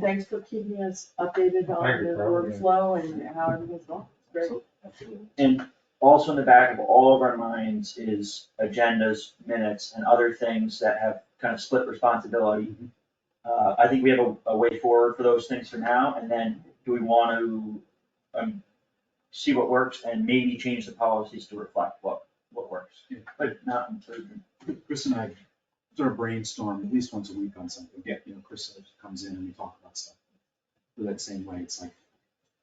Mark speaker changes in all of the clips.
Speaker 1: Thanks for keeping us updated on the workflow and how everything's going. It's Great.
Speaker 2: And also in the back of all of our minds is agendas, minutes, and other things that have kind of split responsibility.
Speaker 3: Mm-hmm.
Speaker 2: Uh, I think we have a, a way forward for those things for now, and then do we want to, um, see what works and maybe change the policies to reflect what, what works,
Speaker 4: Yeah.
Speaker 2: but not improve.
Speaker 4: Chris and I sort of brainstorm at least once a week on something.
Speaker 2: Yeah.
Speaker 4: You know, Chris sort of comes in and we talk about stuff. But that same way, it's like,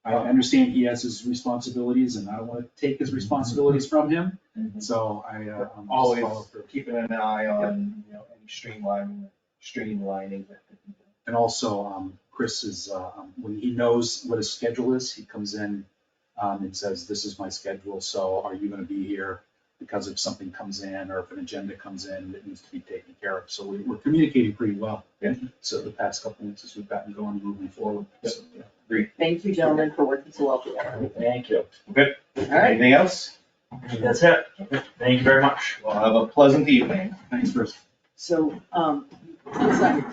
Speaker 4: I understand he has his responsibilities and I don't wanna take
Speaker 3: Mm-hmm.
Speaker 4: his responsibilities from him, so I, uh. I'm just
Speaker 3: Always
Speaker 4: all for-
Speaker 3: keeping an eye on, you know, any streamlining, streamlining that could be done.
Speaker 4: And also, um, Chris is, uh, um, when he knows what his schedule is, he comes in, um, and says, this is my schedule, so are you gonna be here? Because if something comes in or if an agenda comes in that needs to be taken care of, so we, we're communicating pretty well.
Speaker 3: Yeah.
Speaker 4: So the past couple weeks, as we've gotten going, moving forward. so, yeah.
Speaker 1: Thank you, gentlemen, for working so well together.
Speaker 2: Thank you.
Speaker 1: All right,
Speaker 3: Anything else?
Speaker 2: That's it. Thank you very much.
Speaker 3: Well, have a pleasant evening.
Speaker 4: Thanks, Chris.
Speaker 1: so, um, sorry.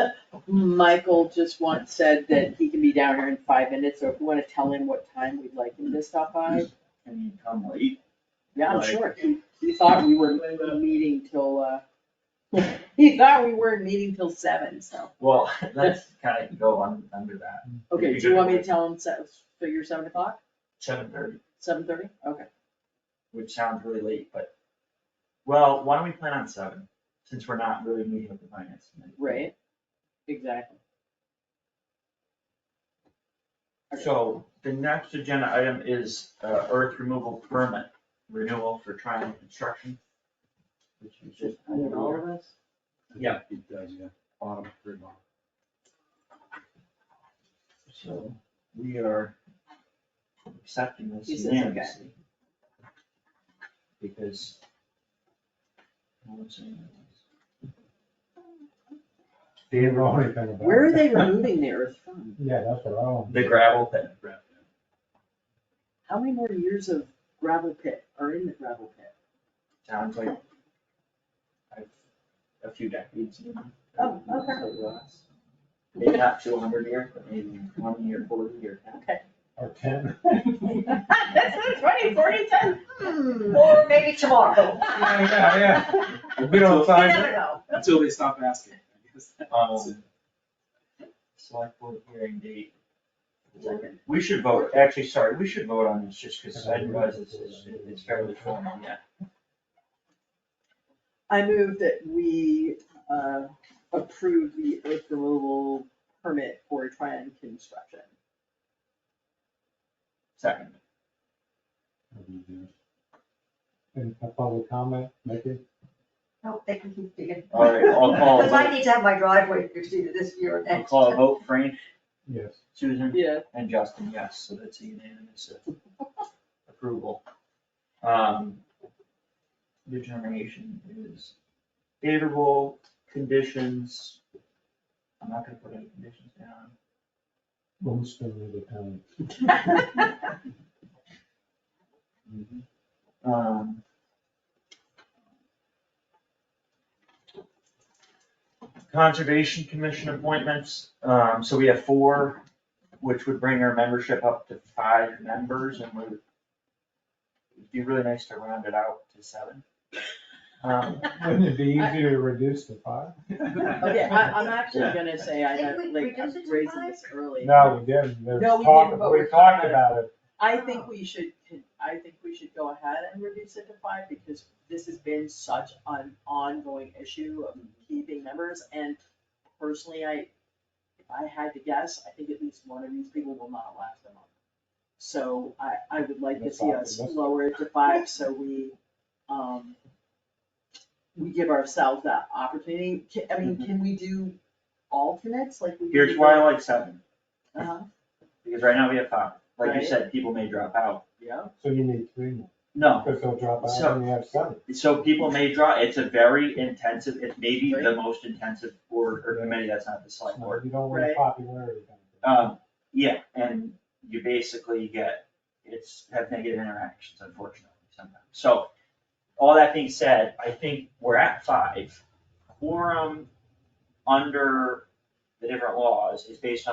Speaker 1: Michael just once said that he can be down here in five minutes, so if you wanna tell him what time we'd like him to stop by,
Speaker 2: Can you come late?
Speaker 1: yeah, I'm
Speaker 2: Right.
Speaker 1: sure. He, he thought we were meeting till, uh, he thought we were meeting till seven, so.
Speaker 2: Well, that's kind of go on under that,
Speaker 1: Okay, do you want me to tell him, se- figure seven o'clock,
Speaker 2: seven thirty.
Speaker 1: seven thirty? Okay.
Speaker 2: which sounds really late, but, well, why don't we plan on seven, since we're not really meeting with the finance committee?
Speaker 1: Right, exactly.
Speaker 2: So the next agenda item is uh, earth removal permit renewal for Triumph Construction. Which is just,
Speaker 1: I mean, all of us,
Speaker 2: Yeah.
Speaker 4: It does, yeah, bottom, very bottom.
Speaker 2: so we are accepting this
Speaker 1: He says okay.
Speaker 2: unanimously. Because. no one's saying anything.
Speaker 5: Dave Rowan kind of.
Speaker 1: where are they removing the earth from?
Speaker 5: Yeah, that's what I want.
Speaker 2: The gravel pit.
Speaker 1: How many more years of gravel pit are in the gravel pit?
Speaker 2: sounds like I've- a few decades. uh,
Speaker 1: Oh, okay.
Speaker 2: Maybe not two hundred years, but maybe one year, forty year.
Speaker 5: Or ten.
Speaker 1: That sounds right, forty times, hmm, or maybe tomorrow.
Speaker 5: Yeah, yeah. A bit
Speaker 2: on
Speaker 1: never know.
Speaker 4: Until they stop asking. I guess that's
Speaker 2: Um,
Speaker 4: it.
Speaker 2: select board hearing date.
Speaker 1: Okay.
Speaker 2: We should vote, actually, sorry, we should vote on this just because I realize this is, it's fairly formal, yeah.
Speaker 1: I move that we, uh, approve the earth removal permit for Tryon Construction.
Speaker 2: Second,
Speaker 5: And a public comment, make it.
Speaker 6: No, they can keep digging.
Speaker 2: all right, I'll call, a
Speaker 6: Because I
Speaker 2: vote.
Speaker 6: need to have my driveway fixed either this year or
Speaker 2: I'll
Speaker 6: next.
Speaker 2: call a vote, Frank,
Speaker 5: Yes.
Speaker 2: Susan,
Speaker 1: Yeah,
Speaker 2: and Justin, yes, so that's a unanimous uh, approval. Um, determination is favorable conditions. I'm not gonna put any conditions down.
Speaker 5: Most of the time.
Speaker 2: Um. Conservation Commission appointments, um, so we have four, which would bring our membership up to five members and we would. It'd be really nice to round it out to seven. Um,
Speaker 5: Wouldn't it be easier to reduce the five?
Speaker 1: Okay, I, I'm actually gonna say I,
Speaker 6: Didn't
Speaker 1: have-
Speaker 6: we
Speaker 1: like, I'm
Speaker 6: reduce it to
Speaker 1: raising
Speaker 6: five?
Speaker 1: this early.
Speaker 5: No, we didn't. There's
Speaker 1: No, we
Speaker 5: talk-
Speaker 1: didn't, but we're
Speaker 5: We talked
Speaker 1: talking
Speaker 5: about it.
Speaker 1: I think we should, con- I think we should go ahead and reduce it to five, because this has been such an ongoing issue of keeping members, and personally, I, if I had to guess, I think at least one of these people will not last a month. So I, I would like to
Speaker 5: That's
Speaker 1: see us
Speaker 5: awesome.
Speaker 1: lower it to five, so we, um, we give ourselves that opportunity, Ca- I mean, can we do alternates, like we? do
Speaker 2: Mm-hmm. here's why I like seven,
Speaker 1: the- Uh-huh,
Speaker 2: because right now we have five, like you
Speaker 1: Right.
Speaker 2: said, people may drop out,
Speaker 1: yeah,
Speaker 5: So you need three more.
Speaker 2: no,
Speaker 5: Because they'll drop
Speaker 2: So-
Speaker 5: out and you have seven.
Speaker 2: So people may draw, it's a very intensive, it's maybe the
Speaker 1: Right.
Speaker 2: most intensive board or committee that's not the select board.
Speaker 5: You don't want
Speaker 1: Right.
Speaker 5: popularity.
Speaker 2: Um, yeah, and you basically get, it's have negative interactions unfortunately sometimes. So all that being said, I think we're at five. Quorum under the different laws is based on